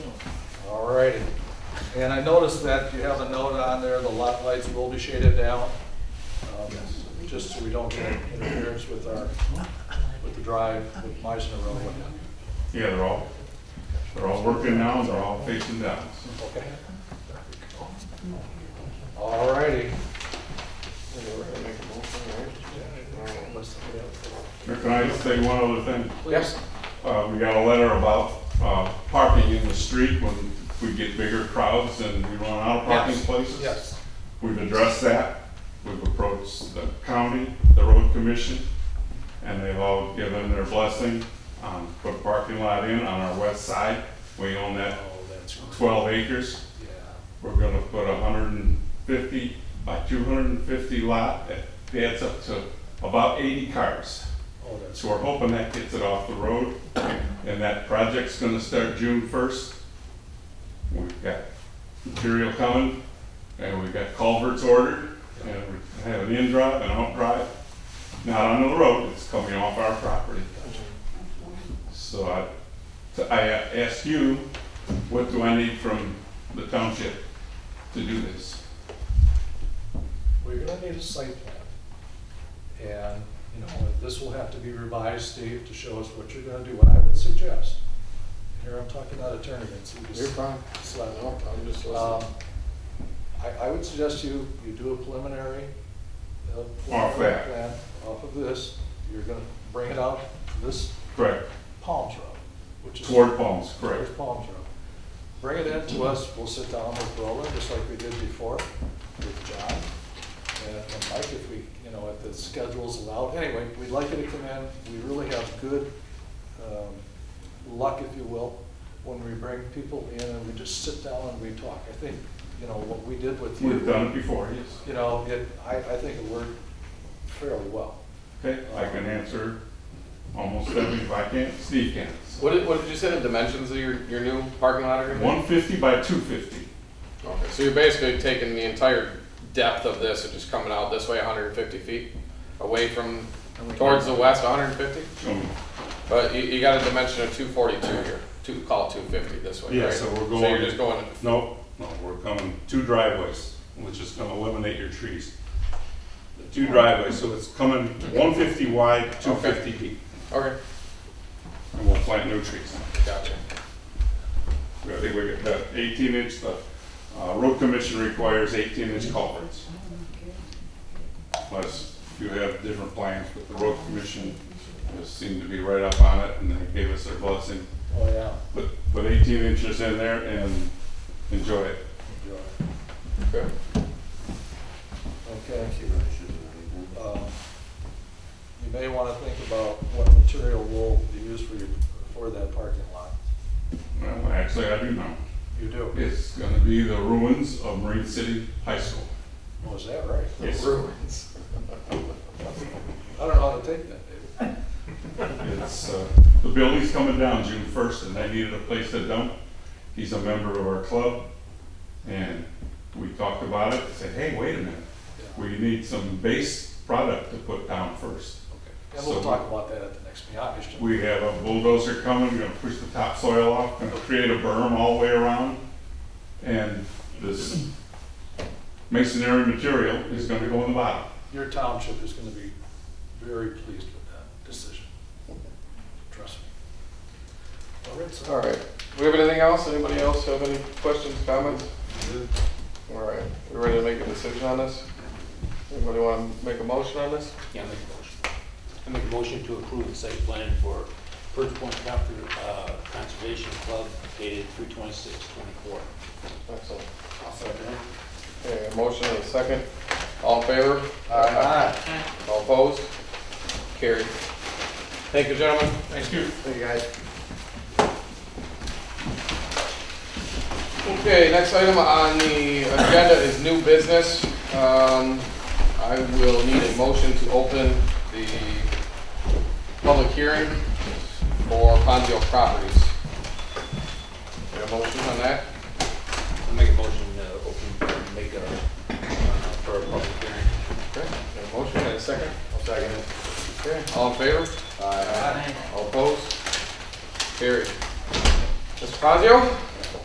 Alrighty, and I noticed that you have a note on there, the lot lights will be shaded down. um, Just so we don't get interference with our, with the drive, with Meisner Road. Yeah, they're all, they're all working now, and they're all facing down. Okay. Alrighty. Mayor, Can I just say one other thing? Yes, Uh, we got a letter about, uh, parking in the street when we get bigger crowds and we run out of parking Yes. places. yes. We've addressed that, we've approached the county, the road commission, and they've all given their blessing on put a parking lot in on our west side. We own Oh, that that's right. twelve acres. Yeah. We're gonna put a hundred and fifty by two hundred and fifty lot that adds up to about eighty cars. Oh, that's So we're hoping that gets it off the road, and that project's gonna start June first. We've got material coming, and we've got culverts ordered, and we have an in drive and out drive. Not on the road, it's coming off our property. So I, so I ask you, what do I need from the township to do this? we're gonna need a site plan. And, you know, this will have to be revised, Steve, to show us what you're gonna do, what I would suggest. Here, I'm talking out of turn again, so you You're just fine. slide it No, I'm just Um, listening. I, I would suggest you, you do a preliminary. Oh, uh, Off that. plan Off of this, you're gonna bring it out to this Correct, Palms Road, which is. toward Palms, correct. Towards Palms Road. Bring it in to us, we'll sit down with Roland, just like we did before, with John. And and Mike, if we, you know, if the schedule's allowed, anyway, we'd like you to come in, we really have good, um, luck, if you will, when we bring people in and we just sit down and we talk. I think, you know, what we did with you. We've done it before, yes. You know, it, I, I think it worked fairly well. Okay, I can answer almost every, if I can't, Steve can. What did, what did you say the dimensions of your, your new parking lot are gonna be? One fifty by two fifty, Okay, so you're basically taking the entire depth of this and just coming out this way hundred and fifty feet away from, towards the west hundred and fifty? um, But you, you got a dimension of two forty-two here, two, call it two fifty this way, Yeah, right? so we're So going- you're just going, no, no, we're coming, two driveways, which is gonna eliminate your trees. The Two driveways, so it's coming one fifty wide, two fifty deep, okay, and we'll plant new trees. gotcha. I think we got that eighteen inch, the, uh, road commission requires eighteen inch culverts. Unless you have different plans, but the road commission just seemed to be right up on it, and they gave us their blessing. Oh, yeah. Put, put eighteen inches in there and enjoy it. Good. Okay. Um, You may want to think about what material will be used for your, for that parking lot. Well, actually, I do know. You do? It's gonna be the ruins of Marine City High School. Oh, is that right? Yes. Ruins. I don't know how to take that, David. It's, uh, the building's coming down June first, and they needed a place to dump. He's a member of our club, and we talked about it, said, hey, wait a minute. We need some base product to put down first. Okay. And we'll So- talk about that at the next meeting, obviously. We have a bulldozer coming, gonna push the topsoil off, gonna create a berm all the way around. And this masonry material is gonna go in the bottom. Your township is going to be very pleased with that decision. Trust me. All right, so. All right, we have anything else? Anybody else have any questions, comments? All right, we ready to make a decision on this? Anybody wanna make a motion on this? Yeah, I make a motion. I make a motion to approve the site plan for First Point Comfort, uh, Conservation Club dated three twenty-six twenty-four. Excellent. I'll second it. Okay, a motion and a second. All in favor? All opposed? Carried. Thank you, gentlemen. Thank you. Thank you, guys. Okay, next item on the agenda is new business. Um, I will need a motion to open the public hearing for Ponzio Properties. Got a motion on that? I'll make a motion to open, make a, uh, for a public hearing. Okay, got a motion and a second? I'll second it. Okay, all in favor? Aye. All opposed? Carried. Mr. Fazio?